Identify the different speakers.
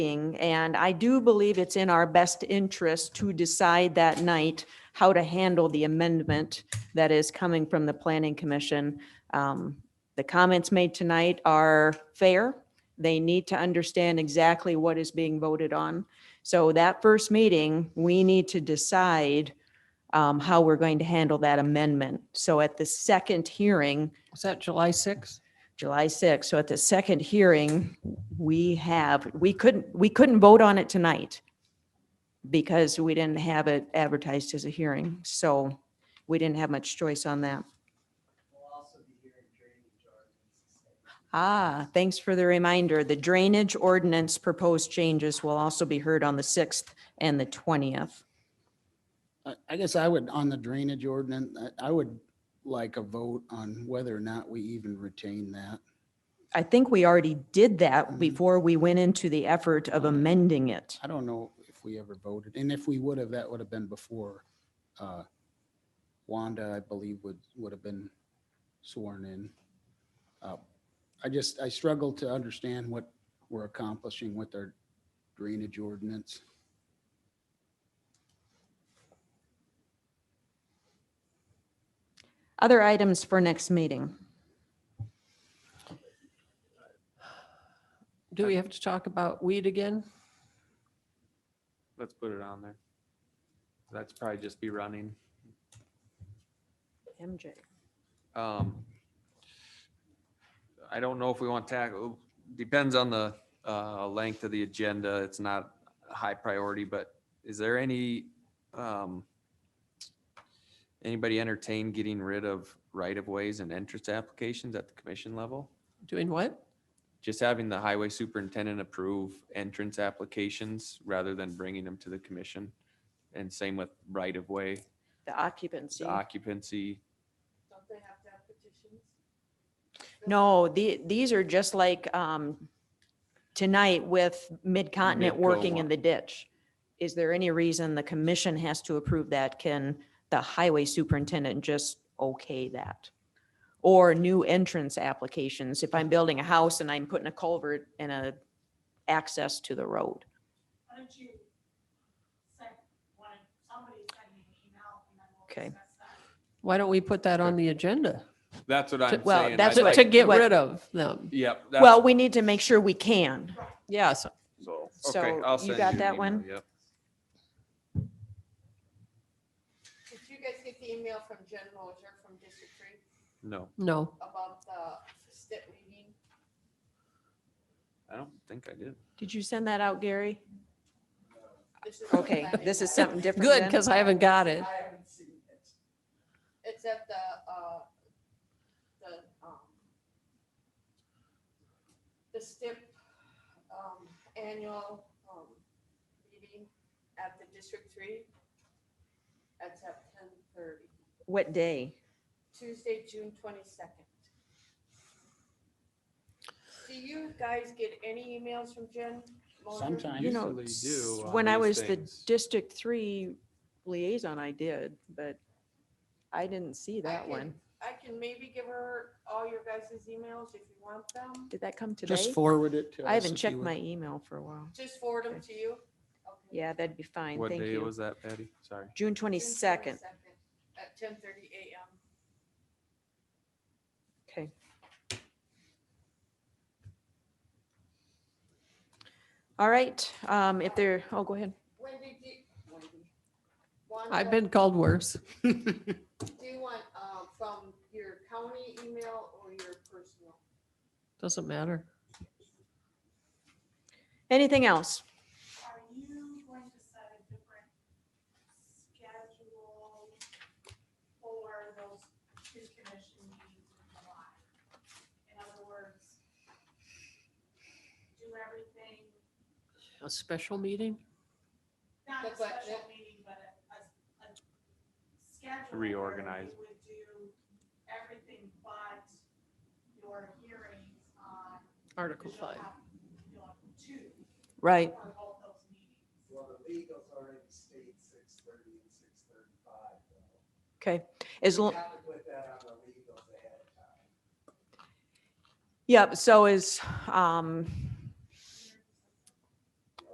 Speaker 1: meeting, and I do believe it's in our best interest to decide that night how to handle the amendment that is coming from the planning commission. Um, The comments made tonight are fair. They need to understand exactly what is being voted on. So that first meeting, we need to decide um, how we're going to handle that amendment. So at the second hearing,
Speaker 2: Was that July 6th?
Speaker 1: July 6th. So at the second hearing, we have, we couldn't, we couldn't vote on it tonight because we didn't have it advertised as a hearing. So we didn't have much choice on that. Ah, thanks for the reminder. The drainage ordinance proposed changes will also be heard on the 6th and the 20th.
Speaker 3: I- I guess I would, on the drainage ordinance, I, I would like a vote on whether or not we even retain that.
Speaker 1: I think we already did that
Speaker 3: Mhm.
Speaker 1: before we went into the effort of amending it.
Speaker 3: I don't know if we ever voted, and if we would have, that would have been before uh, Wanda, I believe, would, would have been sworn in. Uh, I just, I struggle to understand what we're accomplishing with our drainage ordinance.
Speaker 1: Other items for next meeting.
Speaker 2: Do we have to talk about weed again?
Speaker 4: Let's put it on there. That's probably just be running.
Speaker 1: MJ.
Speaker 4: Um, I don't know if we want to tackle, depends on the uh, length of the agenda. It's not a high priority, but is there any, um, anybody entertain getting rid of right-of-ways and entrance applications at the commission level?
Speaker 2: Doing what?
Speaker 4: Just having the highway superintendent approve entrance applications rather than bringing them to the commission? And same with right-of-way,
Speaker 1: The occupancy.
Speaker 4: the occupancy.
Speaker 1: No, the, these are just like, um, tonight with Mid-Continent
Speaker 4: Midco
Speaker 1: working in
Speaker 4: one.
Speaker 1: the ditch. Is there any reason the commission has to approve that? Can the highway superintendent just okay that? Or new entrance applications, if I'm building a house and I'm putting a culvert and a access to the road.
Speaker 5: Why don't you send, why don't somebody send me an email and then we'll
Speaker 1: Okay.
Speaker 5: discuss that.
Speaker 2: Why don't we put that on the agenda?
Speaker 4: That's what
Speaker 2: To-
Speaker 4: I'm
Speaker 1: well,
Speaker 4: saying.
Speaker 1: that's
Speaker 4: I'd
Speaker 2: To
Speaker 1: what-
Speaker 2: to
Speaker 4: like-
Speaker 2: get
Speaker 1: what-
Speaker 2: rid of them.
Speaker 4: Yep. that's-
Speaker 1: Well, we need to make sure we can.
Speaker 2: Yes.
Speaker 4: okay,
Speaker 1: so
Speaker 4: I'll
Speaker 1: you
Speaker 4: send
Speaker 1: got
Speaker 4: an
Speaker 1: that
Speaker 4: email,
Speaker 1: one?
Speaker 4: Yep.
Speaker 6: Did you guys get the email from Jen Roger from District Three
Speaker 4: No,
Speaker 2: No.
Speaker 6: about the STIP meeting?
Speaker 4: I don't think I did.
Speaker 1: Did you send that out, Gary?
Speaker 6: This is the
Speaker 1: Okay,
Speaker 6: planning
Speaker 1: this is
Speaker 6: side.
Speaker 1: something different.
Speaker 2: Good,
Speaker 1: then?
Speaker 2: because I haven't got it.
Speaker 6: It's at the, uh, the, um, the STIP, um, annual, um, meeting at the District Three. It's at ten thirty,
Speaker 1: What day?
Speaker 6: Tuesday, June twenty-second. Do you guys get any emails from Jen? Mulder?
Speaker 3: Sometimes.
Speaker 1: You know,
Speaker 4: usually
Speaker 1: s-
Speaker 4: do on
Speaker 1: when I
Speaker 4: these
Speaker 1: was the
Speaker 4: things.
Speaker 1: District Three liaison, I did, but I didn't see that
Speaker 6: can-
Speaker 1: one.
Speaker 6: I can maybe give her all your guys' emails if you want them.
Speaker 1: Did that come today?
Speaker 3: Just forward it to us.
Speaker 1: I haven't
Speaker 3: if you
Speaker 1: checked
Speaker 3: would.
Speaker 1: my email for a while.
Speaker 6: Just forward them to you. Okay.
Speaker 1: Yeah, that'd be fine.
Speaker 4: What
Speaker 1: Thank
Speaker 4: day
Speaker 1: you.
Speaker 4: was that, Patty? Sorry.
Speaker 1: June
Speaker 6: June
Speaker 1: twenty-second.
Speaker 6: 22nd At ten thirty AM.
Speaker 1: Okay. All right, um, if there, oh, go ahead.
Speaker 6: Wendy, do, Wendy. Wanda,
Speaker 2: I've been called worse.
Speaker 6: Do you want, um, from your county email or your personal?
Speaker 2: Doesn't matter.
Speaker 1: Anything else?
Speaker 5: Are you going to set a different schedule for those two commission meetings in July? In other words, do everything,
Speaker 2: A special meeting?
Speaker 5: not a
Speaker 6: The budget.
Speaker 5: special meeting, but a, a, a schedule. where
Speaker 4: Reorganize.
Speaker 5: you Would do everything but your hearings on.
Speaker 2: Article
Speaker 5: you'll
Speaker 2: 5.
Speaker 5: have- You'll have two
Speaker 1: Right,
Speaker 5: for both those meetings.
Speaker 7: Well, the legal's already state six thirty and six thirty-five.
Speaker 1: okay. As long,
Speaker 7: Have to put that on the legals ahead of time.
Speaker 1: Yep, so is, um,